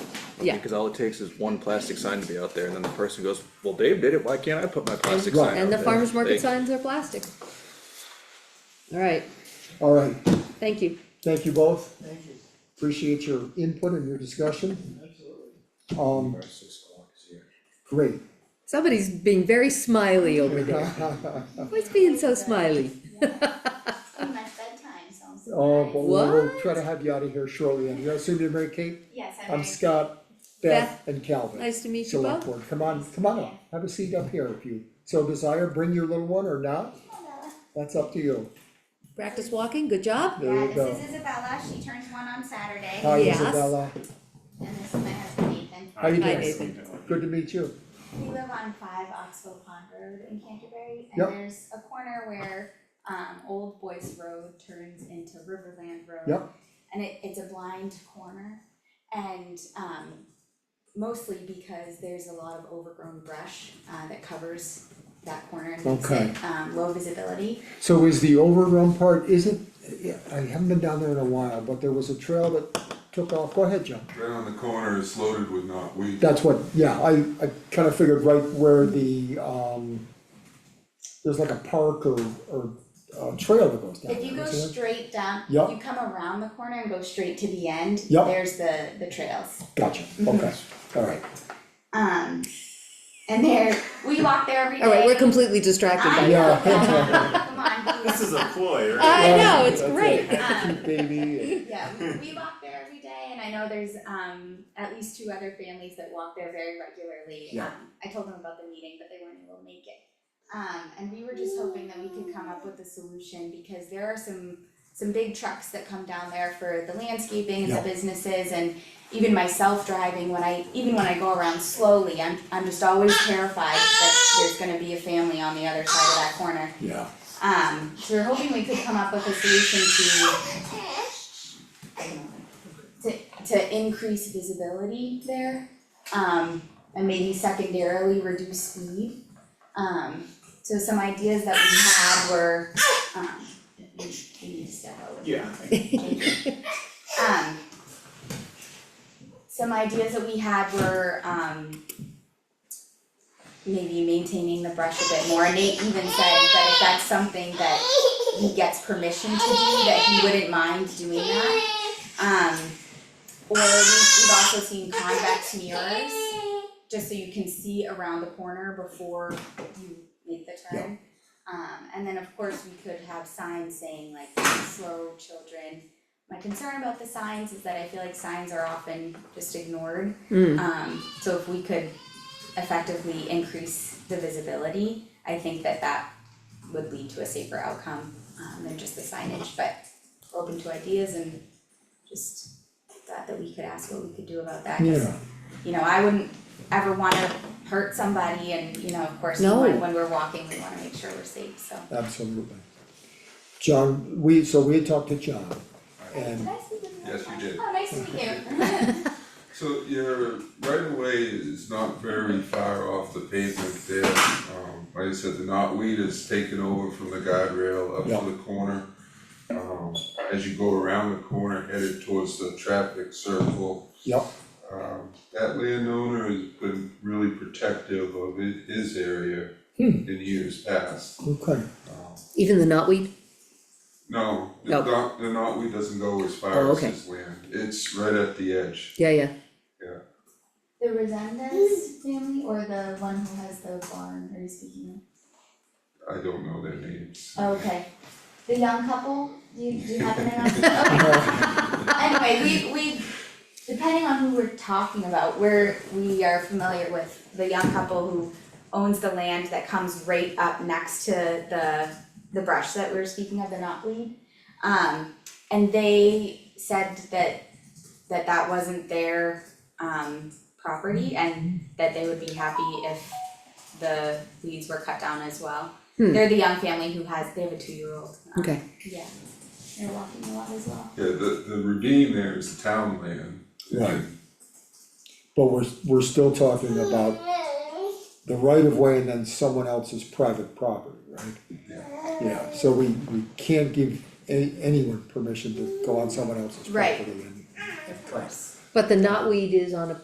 Yeah. Because all it takes is one plastic sign to be out there, and then the person goes, well, Dave did it, why can't I put my plastic sign out Right. And the there?" farmer's They- market signs are plastic. Alright, Alright, thank you. thank you both. Thank you. Appreciate your input and your discussion. Absolutely. Um, great. Somebody's being very smiley over there. Why's being so smiley? my bedtime, sounds Oh, but nice. we'll, we'll try to have you out of here shortly, and you assume you're Mary Kate? Yes, I'm I'm very- Scott, Beth, Beth, and Calvin. nice to meet you Select both. board, come on, come on up, have a seat up here if you so desire, bring your little one or not, that's up to you. Practice walking, good job. There Yeah, you go. this is Isabella, she turns one on Saturday, Hi Yes. Isabella, and this is my husband Nathan. how you Hi, doing? Nathan. Good to meet you. We live on five Oxbow Pond Road in Canterbury, Yep. and there's a corner where, um, Old Boys Road turns into Riverland Road. Yep. And it, it's a blind corner, and, um, mostly because there's a lot of overgrown brush, uh, that covers that corner and makes Okay. it, um, low visibility. So is the overgrown part, isn't, yeah, I haven't been down there in a while, but there was a trail that took off, go ahead, John. Right on the corner is loaded with knotweed. That's what, yeah, I, I kind of figured right where the, um, there's like a park or, or a trail that goes down If you there, go isn't there? straight down, Yep. you come around the corner and go straight to the end, Yep. there's the, the trails. Gotcha, okay, alright. Um, and there, we walk there every day. Alright, we're completely distracted I by Yeah. that. know, come on, This is a ploy, right? I know, it's That's it. great. um, Baby, yeah, we, we walk there every day, and I know there's, um, at least two other families that walk there very regularly. Yeah. Um, I told them about the meeting, but they weren't able to make it. Um, and we were just hoping that we could come up with a solution, because there are some, some big trucks that come down there for the landscaping and Yeah. the businesses, and even myself driving, when I, even when I go around slowly, I'm, I'm just always terrified that there's gonna be a family on the other side of that corner. yeah, Um, so we're hoping we could come up with a solution to to to increase visibility there, um, and maybe secondarily reduce speed. Um, so some ideas that we had were, um, we need to step out. Yeah. Um, some ideas that we had were, um, maybe maintaining the brush a bit more, and Nate even said that if that's something that he gets permission to do, that he wouldn't mind doing that. Um, or we- we've also seen convex mirrors, just so you can see around the corner before you make the turn. Um, and then of course, we could have signs saying like, slow children. My concern about the signs is that I feel like signs are often just ignored. Mm. Um, so if we could effectively increase the visibility, I think that that would lead to a safer outcome, um, than just the signage, but we're open to ideas and just thought that we could ask what we could do about that. 'cause, Yeah. You know, I wouldn't ever wanna hurt somebody and, you know, of course, we No. want- when we're walking, we wanna make sure we're safe, so. absolutely. John, we, so we had talked to John, and Did I see them? Yes, you did. Oh, nice to meet you. So your right of way is not very far off the pavement there. Um, like I said, the knotweed is taken over from the guardrail up Yeah. to the corner. Um, as you go around the corner headed towards the traffic circle. Yep. Um, that landowner has been really protective of hi- his area Hmm. in years past. Okay, Um, Even the knotweed? No, the No. knot, the knotweed doesn't go as Oh, far as okay. his land. It's right at the edge. Yeah, yeah. The Resendez family or the one who has the barn, are you speaking I don't know their names. of? Oh, Okay, the young couple, do you, do you happen to know? Anyway, we, we, depending on who we're talking about, we're, we are familiar with the young couple who owns the land that comes right up next to the, the brush that we were speaking of, the knotweed. Um, and they said that, that that wasn't their, um, property and that they would be happy if the weeds were cut down as well. Hmm. They're the young family who has, they have a two-year-old. um, Okay. Yeah, they're walking a lot as well. Yeah, the, the ravine there is town land. Right. but we're, we're still talking about the right of way and then someone else's private property, right? Yeah, so we, we can't give a- anyone permission to go on someone else's Right. property and. Of course. But the knotweed is on a